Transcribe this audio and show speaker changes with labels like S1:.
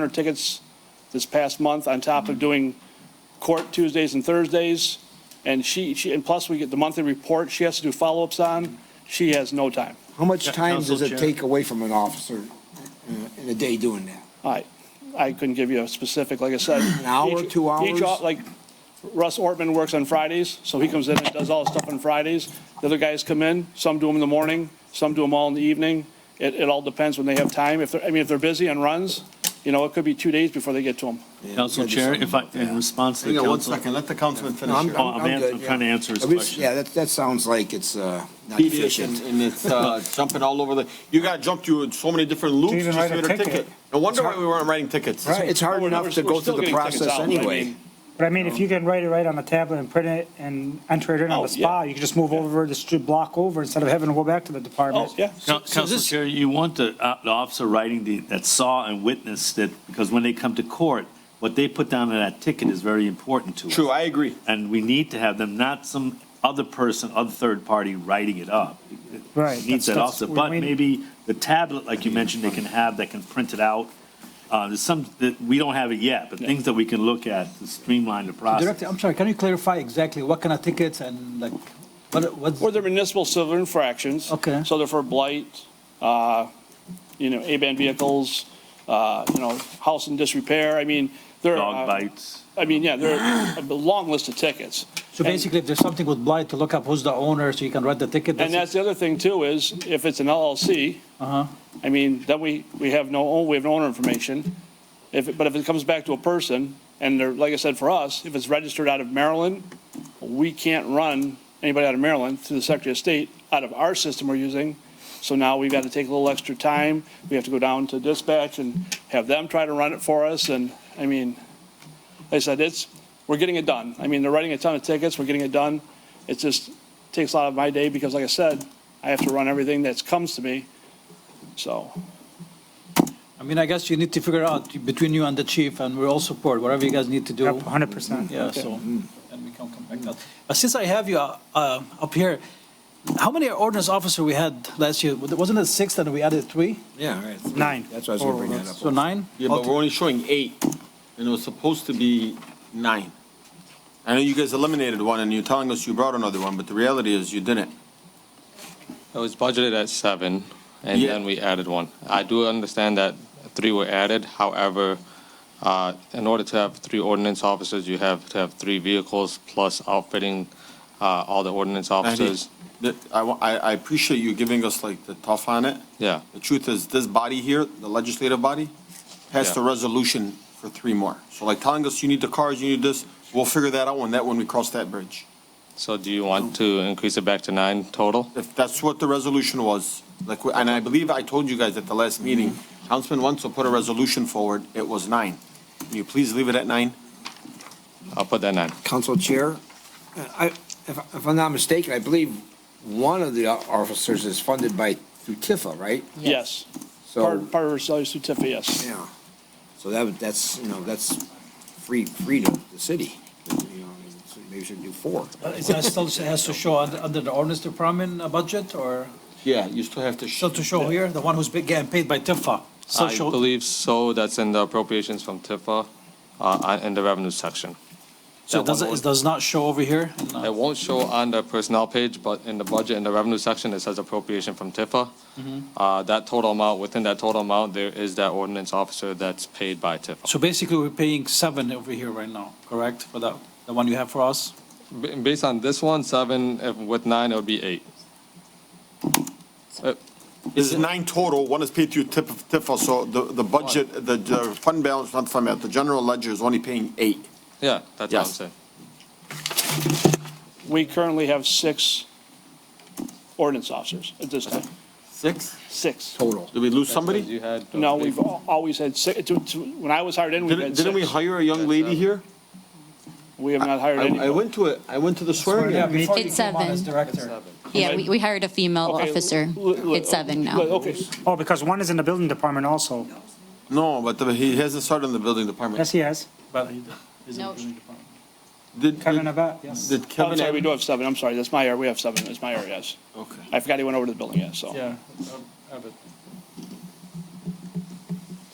S1: 100 tickets this past month on top of doing court Tuesdays and Thursdays. And she, she, and plus we get the monthly report she has to do follow-ups on. She has no time.
S2: How much
S3: Yeah,
S2: time
S3: Council
S2: does it
S3: Chair.
S2: take away from an officer in a- in a day doing that?
S1: I, I couldn't give you a specific, like I said. An
S2: hour, two hours?
S1: Like Russ Ortman works on Fridays, so he comes in and does all his stuff on Fridays. The other guys come in, some do them in the morning, some do them all in the evening. It, it all depends when they have time. If they're, I mean, if they're busy on runs, you know, it could be two days before they get to them.
S3: Council Chair, if I, in response to
S4: Hang
S3: the
S4: on one
S3: council.
S4: second, let the councilman
S2: No,
S4: finish
S2: I'm-
S4: here.
S3: Oh, I'm
S2: I'm
S3: ans-
S2: good,
S3: I'm trying to answer his
S2: I mean,
S3: question.
S2: Yeah, that, that sounds like it's, uh, not
S4: Tedious and
S2: efficient.
S4: and it's uh, jumping all over the, you gotta jump through so many different loops
S5: even
S4: just
S5: write
S4: to
S5: a
S4: get a
S5: ticket.
S4: ticket. No wonder why we weren't writing tickets.
S2: It's hard
S1: We're-
S2: enough to
S1: we're
S2: go
S1: still
S2: through the
S1: getting tickets
S2: process
S1: out, but I
S2: anyway.
S1: mean,
S5: But I mean, if you can write it right on the tablet and print it and enter it in on
S1: Oh,
S5: the spot,
S1: yeah.
S5: you can just move over the street block over instead of having to go back to the department.
S1: Oh, yeah.
S3: Coun- Council Chair, you want the, uh, the officer writing the, that saw and witnessed it, because when they come to court, what they put down in that ticket is very important to us.
S4: True, I agree.
S3: And we need to have them, not some other person, other third party writing it up.
S5: Right,
S3: It Needs
S5: that's-
S3: that
S5: that's
S3: officer,
S5: what
S3: but
S5: we need.
S3: maybe the tablet, like you mentioned, they can have, that can print it out. Uh, there's some, that, we don't have it yet, but things that we can look at to streamline the process.
S6: Director, I'm sorry, can you clarify exactly what kind of tickets and like, what, what's?
S1: Or they're municipal civil infractions.
S6: Okay.
S1: So they're for blight, uh, you know, A-band vehicles, uh, you know, house in disrepair. I mean, there
S4: uh,
S3: Dog
S1: are,
S3: bites.
S1: I mean, yeah, there are a long list of tickets.
S6: So basically, if there's something with blight, to look up who's the owner, so you can write the ticket.
S1: And that's
S6: it.
S1: the other thing too, is if it's an LLC, I mean, then we, we have no, own- we have no owner information. If, it- but if it comes back to a person, and they're, like I said, for us, if it's registered out of Maryland, we can't run anybody out of Maryland through the Secretary of State out of our system we're using. So now we've got to take a little extra time. We have to go down to dispatch and have them try to run it for us. And, I mean, like I said, it's, we're getting it done. I mean, they're writing a ton of tickets, we're getting it done. It just takes a lot of my day because like I said, I have to run everything that's comes to me. So,
S6: I mean, I guess you need to figure out between you and the chief, and we're all support, whatever you guys need to do.
S5: Yep, 100%.
S6: Yeah, so, and we can come back up. But since I have you uh, uh, up here, how many ordinance officer we had last year? Wasn't it six and we added three?
S2: Yeah, right.
S5: Nine.
S2: That's why I was gonna bring that up.
S6: So nine?
S4: Yeah, but we're only showing eight, and it was supposed to be nine. I know you guys eliminated one, and you're telling us you brought another one, but the reality is you didn't.
S7: It was budgeted at seven, and
S4: Yeah.
S7: then we added one. I do understand that three were added, however, uh, in order to have three ordinance officers, you have to have three vehicles plus outfitting uh, all the ordinance officers.
S4: That- I, wa- I I appreciate you giving us like the tough on it.
S7: Yeah,
S4: The truth is, this body here, the legislative body, passed a
S7: Yeah.
S4: resolution for three more. So like telling us you need the cars, you need this, we'll figure that out when that, when we cross that bridge.
S7: so do you want to increase it back to nine total?
S4: If that's what the resolution was, like, and I believe I told you guys at the last meeting, Councilman Wenzel put a resolution forward, it was nine. Can you please leave it at nine?
S7: I'll put that nine.
S2: Council Chair, uh, I, if, if I'm not mistaken, I believe one of the officers is funded by, through TIFA, right?
S1: yes,
S2: So,
S1: part, part of our salary certificate, yes.
S2: yeah. So that, would- that's, you know, that's free, free to the city. You know, I mean, so Maybe we should do four.
S6: But It still has to show under under the ordinance department uh, budget, or
S4: Yeah, you still have to.
S6: still to show here, the one who's be- getting paid by Tifa? Still
S7: I
S6: show-
S7: believe so, that's in the appropriations from TIFA, uh, in the revenue section.
S6: So it doesn't, it does not show over here? No.
S7: It won't show on the personnel page, but in the budget, in the revenue section, it says appropriation from Tifa. Uh, that total amount, within that total amount, there is that ordinance officer that's paid by Tifa.
S6: So basically, we're paying seven over here right now, correct, for that, the one you have for us?
S7: Ba- Based on this one, seven, if with nine, it would be eight.
S4: It's nine total, one is paid through tip TIFA, so the, the budget, the, the fund balance, not fund balance, the general ledger is only paying eight.
S7: Yeah, that's what I'm
S4: Yes.
S7: saying.
S1: We currently have six ordinance officers at this time,
S4: Six?
S1: six.
S2: Total.
S4: Did we lose
S7: Because
S4: somebody?
S7: You had. uh,
S1: No,
S7: big-
S1: we've al- always had six, to, to, when I was hired in, we
S4: Didn't,
S1: had
S4: didn't we
S1: six.
S4: hire a young lady here?
S1: We have not hired
S4: I, I
S1: any.
S4: went to it, I went to the swearing. in.
S5: Yeah,
S6: before you
S8: It's
S6: came on
S8: seven.
S6: as director.
S8: Yeah, we, we hired a female
S1: Okay,
S8: officer
S1: l- l-
S8: at seven now.
S1: But, Okay,
S5: Oh, because one is in the building department also.
S4: No, but the- he hasn't started in the building department.
S5: Yes, he has.
S6: But he- he's in
S8: No.
S6: the building department.
S4: Did,
S5: Kevin
S4: did
S5: Abbott, yes.
S4: did
S1: Oh, I'm
S4: Kevin?
S1: sorry, we do have seven, I'm sorry, that's my area, we have seven, that's my area, yes.
S4: Okay.
S1: I forgot he went over to the building, yes, so.
S6: Yeah.